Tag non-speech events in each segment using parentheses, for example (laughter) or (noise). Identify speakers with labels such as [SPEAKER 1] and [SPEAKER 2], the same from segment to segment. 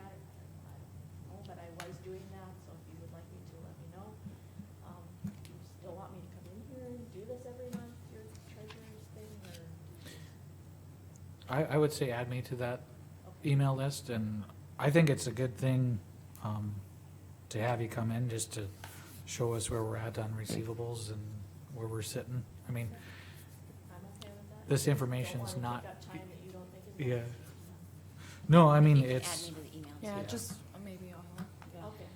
[SPEAKER 1] um,
[SPEAKER 2] I, I would say add me to that email list, and I think it's a good thing um, to have you come in, just to show us where we're at on receivables and where we're sitting. I mean,
[SPEAKER 1] I'm okay with that.
[SPEAKER 2] this information's
[SPEAKER 1] Don't wanna
[SPEAKER 2] not,
[SPEAKER 1] take up time that you don't think is
[SPEAKER 2] yeah.
[SPEAKER 1] necessary.
[SPEAKER 2] No, I mean,
[SPEAKER 3] You can
[SPEAKER 2] it's.
[SPEAKER 3] Add me to the email.
[SPEAKER 4] Yeah,
[SPEAKER 2] Yeah.
[SPEAKER 4] just maybe uh, I'll, yeah.
[SPEAKER 1] Okay.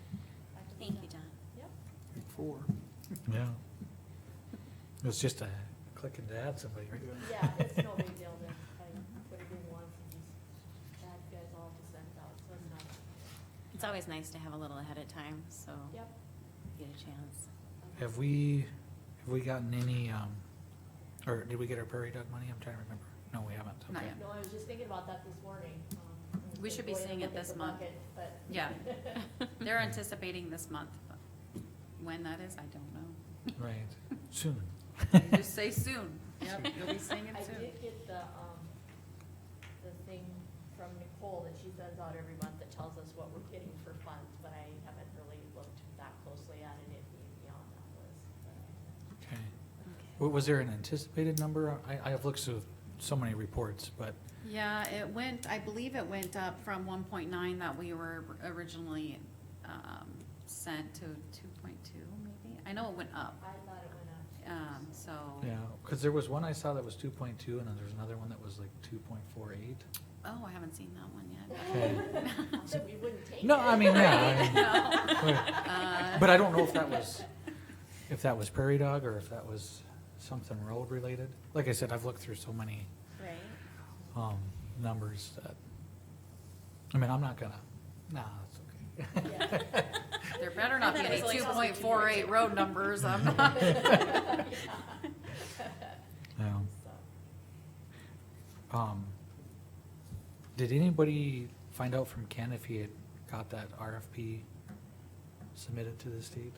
[SPEAKER 1] I can do
[SPEAKER 3] Thank you,
[SPEAKER 1] that.
[SPEAKER 3] Don.
[SPEAKER 1] Yep.
[SPEAKER 5] Four.
[SPEAKER 2] Yeah. It's just a clicking to add somebody. right?
[SPEAKER 1] Yeah, it's no big deal then. I put it in once and just add you guys all to send it out, so it's not,
[SPEAKER 3] It's always nice to have a little ahead of time, so
[SPEAKER 1] yep.
[SPEAKER 3] you get
[SPEAKER 1] (laughs)
[SPEAKER 3] a chance.
[SPEAKER 2] Have we, have we gotten any, um, or did we get our prairie dog money? I'm trying to remember. No, we haven't.
[SPEAKER 3] Not
[SPEAKER 2] Okay.
[SPEAKER 3] yet.
[SPEAKER 1] No, I was just thinking about that this morning. um, I was
[SPEAKER 3] We
[SPEAKER 1] gonna
[SPEAKER 3] should be
[SPEAKER 1] go in and
[SPEAKER 3] seeing it
[SPEAKER 1] look at
[SPEAKER 3] this
[SPEAKER 1] the
[SPEAKER 3] month.
[SPEAKER 1] bucket, But.
[SPEAKER 3] Yeah. (laughs) They're anticipating this month, but when that is, I don't
[SPEAKER 1] (laughs)
[SPEAKER 3] know.
[SPEAKER 2] Right, soon.
[SPEAKER 3] They Just say soon.
[SPEAKER 1] (laughs)
[SPEAKER 3] Yep, you'll be seeing
[SPEAKER 1] (laughs) I did get the, um, the thing from Nicole that she sends out every month that tells us what we're getting for funds, but I haven't really looked that closely at it, if you- beyond that list.
[SPEAKER 2] Okay. Wa- Was there an anticipated number? I, I have looked through so many reports, but,
[SPEAKER 3] Yeah, it went, I believe it went up from one point nine that we were originally, um, sent to two point two maybe. I know it went up,
[SPEAKER 1] I thought it went up.
[SPEAKER 3] um, so.
[SPEAKER 2] yeah, because there was one I saw that was two point two, and then there's another one that was like two point four eight.
[SPEAKER 3] Oh, I haven't seen that one yet.
[SPEAKER 1] (laughs) Not
[SPEAKER 2] (laughs)
[SPEAKER 3] (laughs)
[SPEAKER 1] that we wouldn't take it.
[SPEAKER 2] No, I
[SPEAKER 1] (laughs)
[SPEAKER 2] mean, yeah,
[SPEAKER 3] No.
[SPEAKER 2] I mean,
[SPEAKER 3] Uh,
[SPEAKER 2] but I don't know if that was, if that was prairie dog, or if that was something road related. Like I said, I've looked through so many
[SPEAKER 3] (laughs) Right.
[SPEAKER 2] um, numbers that, I mean, I'm not gonna, nah, it's okay.
[SPEAKER 3] There better not be
[SPEAKER 1] That
[SPEAKER 3] any
[SPEAKER 1] was like
[SPEAKER 3] two point four eight road numbers, i
[SPEAKER 2] (laughs) Yeah.
[SPEAKER 1] So,
[SPEAKER 2] Um, did anybody find out from Ken if he had got that RFP submitted to the state?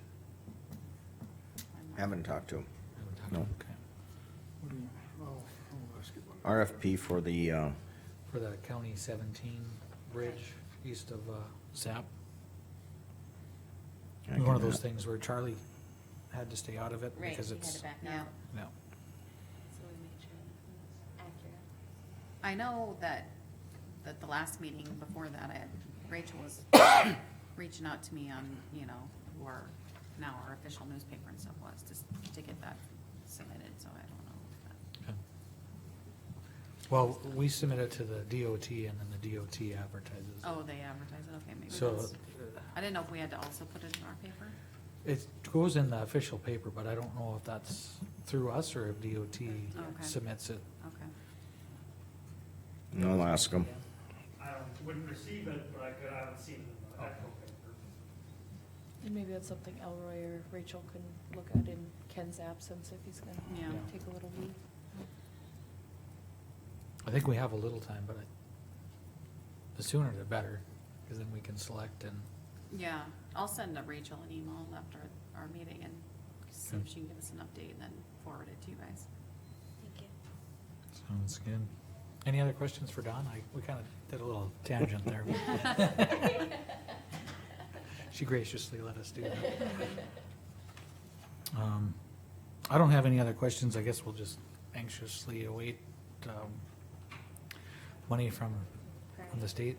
[SPEAKER 6] Haven't talked to him.
[SPEAKER 2] I haven't talked to
[SPEAKER 6] No.
[SPEAKER 2] him, okay.
[SPEAKER 5] What do you, oh, I'll ask you about
[SPEAKER 6] RFP for the, uh,
[SPEAKER 2] For the County seventeen bridge east of, uh, Zap.
[SPEAKER 6] I
[SPEAKER 2] One of
[SPEAKER 6] can-
[SPEAKER 2] those things where Charlie had to stay out of it because it's,
[SPEAKER 3] Yeah.
[SPEAKER 2] yeah,
[SPEAKER 3] I know that, that the last meeting before that, I, Rachel was reaching out to me on, you know, or now our official newspaper and stuff was, just to get that submitted, so I don't know. if that-
[SPEAKER 2] okay. Well, we submit it to the DOT and then the DOT advertises. it.
[SPEAKER 3] Oh, they advertise it, okay, maybe
[SPEAKER 2] So
[SPEAKER 3] that's, I didn't know if we had to also put it in our paper.
[SPEAKER 2] it goes in the official paper, but I don't know if that's through us or if DOT
[SPEAKER 3] Okay.
[SPEAKER 2] submits it.
[SPEAKER 3] Okay.
[SPEAKER 6] I'll ask him.
[SPEAKER 7] I don't- wouldn't receive it, but I could, I haven't seen the actual paper.
[SPEAKER 4] And maybe that's something Elroy or Rachel can look at in Ken's absence if he's
[SPEAKER 3] Yeah.
[SPEAKER 4] gonna
[SPEAKER 3] Yeah.
[SPEAKER 4] take a little leave.
[SPEAKER 2] I think we have a little time, but I- the sooner the better, because then we can select and,
[SPEAKER 3] Yeah, I'll send uh, Rachel an email after our meeting and see if
[SPEAKER 2] Okay.
[SPEAKER 3] she can give us an update and then forward it to you guys.
[SPEAKER 1] (laughs)
[SPEAKER 2] Sounds good. Any other questions for Don? I, we kind of did a little tangent there.
[SPEAKER 1] (laughs)
[SPEAKER 3] (laughs)
[SPEAKER 2] (laughs) She graciously let us do that. Um, I don't have any other questions. I guess we'll just anxiously await, um, money from, from the state.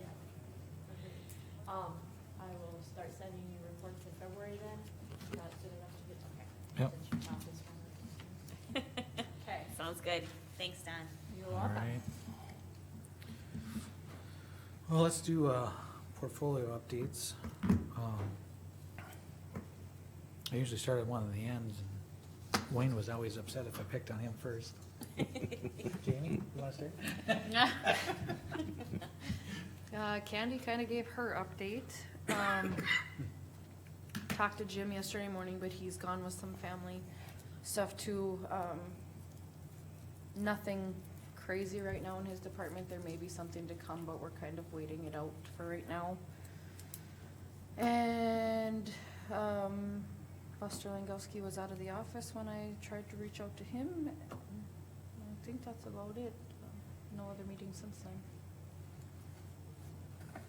[SPEAKER 1] yeah. Um, I will start sending you reports in February then, not soon enough to get, okay.
[SPEAKER 2] Yep.
[SPEAKER 1] Since you found this one. (laughs) Okay,
[SPEAKER 3] Sounds good. Thanks, Don.
[SPEAKER 1] you're
[SPEAKER 2] All
[SPEAKER 1] welcome.
[SPEAKER 2] right. Well, let's do, uh, portfolio updates. Um, I usually start at one of the ends, and Wayne was always upset if I picked on him first.
[SPEAKER 1] (laughs)
[SPEAKER 2] Jamie, you wanna start?
[SPEAKER 4] (laughs) Uh, Candy kind of gave her update. Um, talked to Jim yesterday morning, but he's gone with some family stuff too. Um, nothing crazy right now in his department. There may be something to come, but we're kind of waiting it out for right now. And, um, Buster Langowski was out of the office when I tried to reach out to him. I think that's about it. No other meetings since then.